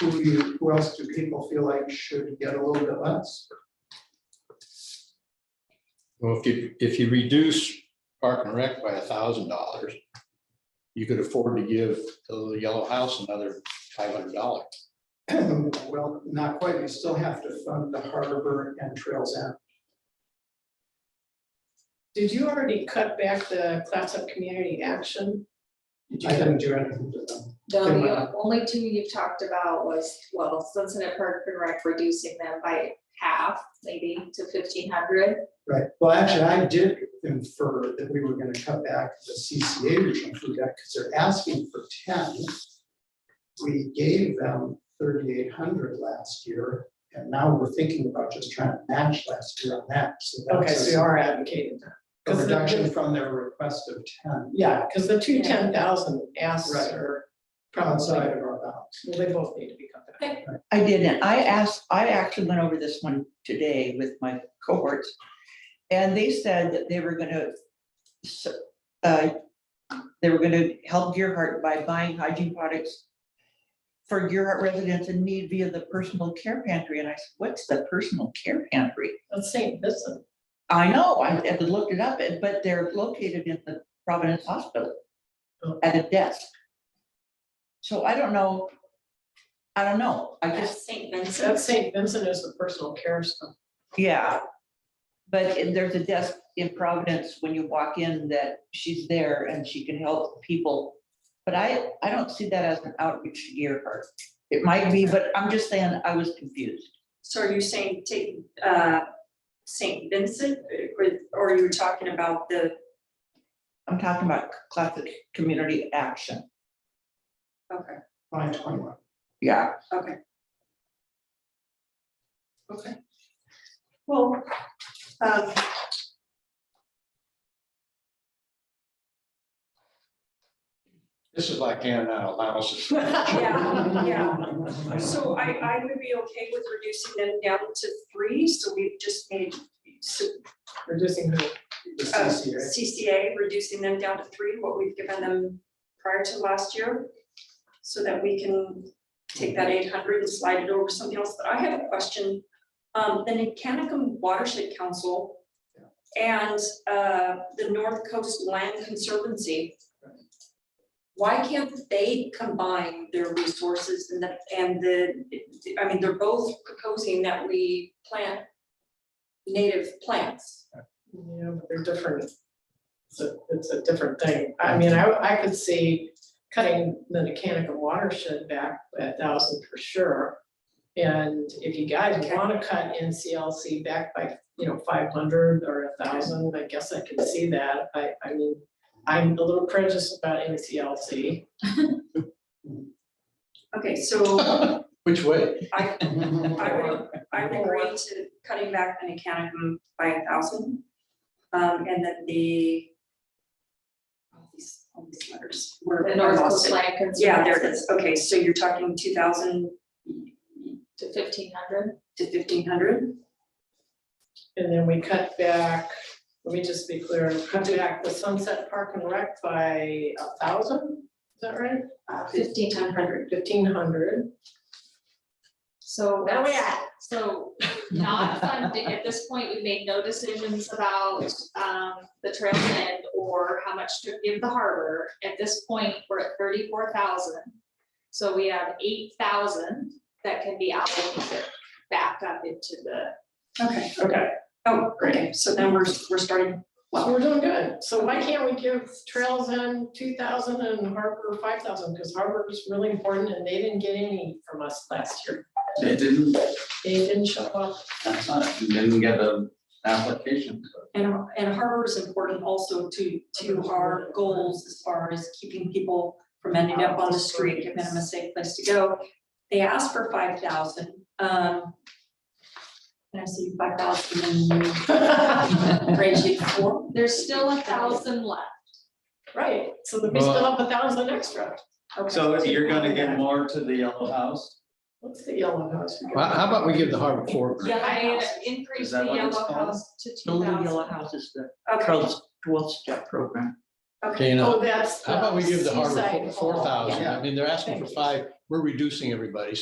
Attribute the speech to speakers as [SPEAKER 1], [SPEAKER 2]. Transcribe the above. [SPEAKER 1] Who do you, who else do people feel like should get a little bit less?
[SPEAKER 2] Well, if you, if you reduce Park and Rec by a thousand dollars, you could afford to give the Yellow House another five hundred dollars.
[SPEAKER 1] Well, not quite, you still have to fund the harbor and trails end.
[SPEAKER 3] Did you already cut back the class up community action?
[SPEAKER 1] I didn't do anything to them.
[SPEAKER 4] No,
[SPEAKER 1] Good
[SPEAKER 4] the
[SPEAKER 1] one.
[SPEAKER 4] only two you've talked about was, well, Sunset Park and Rec reducing them by half, maybe to fifteen hundred.
[SPEAKER 1] Right, well, actually, I did infer that we were gonna cut back the CCA region food debt, because they're asking for ten. We gave them thirty-eight hundred last year, and now we're thinking about just trying to match last year on that, so
[SPEAKER 3] Okay, so
[SPEAKER 1] that's
[SPEAKER 3] you
[SPEAKER 1] a-
[SPEAKER 3] are advocating that.
[SPEAKER 1] a
[SPEAKER 3] 'Cause the-
[SPEAKER 1] reduction from their request of ten
[SPEAKER 3] Yeah, because the two ten thousand
[SPEAKER 1] Right.
[SPEAKER 3] asks are probably,
[SPEAKER 1] outside
[SPEAKER 3] well,
[SPEAKER 1] of our bounds.
[SPEAKER 3] they both need to be cut back.
[SPEAKER 5] I didn't. I asked, I actually went over this one today with my cohorts. And they said that they were gonna, s- uh, they were gonna help Gearheart by buying hygiene products for Gearheart residents in need via the personal care pantry. And I said, what's the personal care pantry?
[SPEAKER 3] Let's say this one.
[SPEAKER 5] I know, I had to look it up, and- but they're located in the Providence Hospital at a desk. So I don't know. I don't know. I just
[SPEAKER 4] St.
[SPEAKER 3] That St. Vincent is the personal care stuff.
[SPEAKER 5] Yeah. But in- there's a desk in Providence when you walk in that she's there and she can help people. But I, I don't see that as an outreach to Gearheart. It might be, but I'm just saying I was confused.
[SPEAKER 6] So are you saying take, uh, Saint Vincent, or, or you were talking about the,
[SPEAKER 5] I'm talking about classic community action.
[SPEAKER 6] okay,
[SPEAKER 1] Fine, twenty-one.
[SPEAKER 5] Yeah.
[SPEAKER 6] okay.
[SPEAKER 3] Okay.
[SPEAKER 6] Well, um,
[SPEAKER 2] This is like handing out allowances.
[SPEAKER 6] Yeah, so I, I would be okay with reducing them down to three, so we've just made so,
[SPEAKER 3] Reducing who?
[SPEAKER 1] The
[SPEAKER 6] uh,
[SPEAKER 1] CCA.
[SPEAKER 6] CCA, reducing them down to three, what we've given them prior to last year. So that we can take that eight hundred and slide it over to something else, but I have a question. Um, the Nicanicum Watershed Council and, uh, the North Coast Land Conservancy. Why can't they combine their resources and the, and the, I mean, they're both proposing that we plant native plants.
[SPEAKER 3] Yeah, but they're different. It's a, it's a different thing. I mean, I, I could see cutting the Mechanical watershed back a thousand for sure. And if you guys
[SPEAKER 6] Okay.
[SPEAKER 3] wanna cut NCLC back by, you know, five hundred or a thousand, I guess I can see that. I, I mean, I'm a little prejudiced about NCLC.
[SPEAKER 6] Okay, so
[SPEAKER 2] Which way?
[SPEAKER 6] I, I would, I would
[SPEAKER 3] Or-
[SPEAKER 6] agree to cutting back the Nicanicum by a thousand. Um, and that the. All these, all these letters. where-
[SPEAKER 4] The
[SPEAKER 6] I
[SPEAKER 4] North
[SPEAKER 6] lost
[SPEAKER 4] Coast
[SPEAKER 6] it.
[SPEAKER 4] Land Conservancy.
[SPEAKER 6] Yeah, there it is. Okay, so you're talking two thousand
[SPEAKER 4] To fifteen hundred.
[SPEAKER 6] to fifteen hundred?
[SPEAKER 3] And then we cut back, let me just be clear, cut back the Sunset Park and Rec by a thousand, is that right?
[SPEAKER 4] Uh, Fifteen hundred.
[SPEAKER 3] Fifteen hundred.
[SPEAKER 4] So
[SPEAKER 3] Where we
[SPEAKER 4] that's, so not funding, at this point, we made no decisions about um the trail end or how much to give the harbor. At this point, we're at thirty-four thousand. So we have eight thousand that can be allocated back up into the
[SPEAKER 6] Okay,
[SPEAKER 3] Okay.
[SPEAKER 6] oh, okay, so then we're, we're starting,
[SPEAKER 3] So we're doing good. So why can't we give Trails End two thousand and Harbor five thousand? Because Harbor is really important and they didn't get any from us last year.
[SPEAKER 7] They didn't,
[SPEAKER 3] They didn't show up.
[SPEAKER 7] that's not, it. didn't get an application.
[SPEAKER 6] and, and harbor is important also to, to our goals as far as keeping people from ending up on the street, giving them a safe place to go. They asked for five thousand, um. And I see five thousand and you raised it to four.
[SPEAKER 4] There's still a thousand left.
[SPEAKER 3] Right, so that we still have a thousand extra.
[SPEAKER 6] Okay.
[SPEAKER 7] So you're gonna give more to the Yellow House?
[SPEAKER 3] What's the yellow house?
[SPEAKER 2] Well, how about we give the harbor four grand?
[SPEAKER 6] Yellow
[SPEAKER 4] I
[SPEAKER 6] House.
[SPEAKER 4] increased
[SPEAKER 7] Is
[SPEAKER 4] the
[SPEAKER 7] that what it's
[SPEAKER 4] yellow
[SPEAKER 7] called?
[SPEAKER 4] house to
[SPEAKER 5] The
[SPEAKER 4] two
[SPEAKER 5] Little Yellow
[SPEAKER 4] thousand.
[SPEAKER 5] House is the
[SPEAKER 6] Okay,
[SPEAKER 5] twelve-step program.
[SPEAKER 6] okay,
[SPEAKER 2] Dana,
[SPEAKER 3] Oh, that's.
[SPEAKER 2] how about we give the harbor
[SPEAKER 3] seaside
[SPEAKER 2] four
[SPEAKER 3] hall.
[SPEAKER 2] thousand? I mean, they're asking for five, we're reducing everybody, so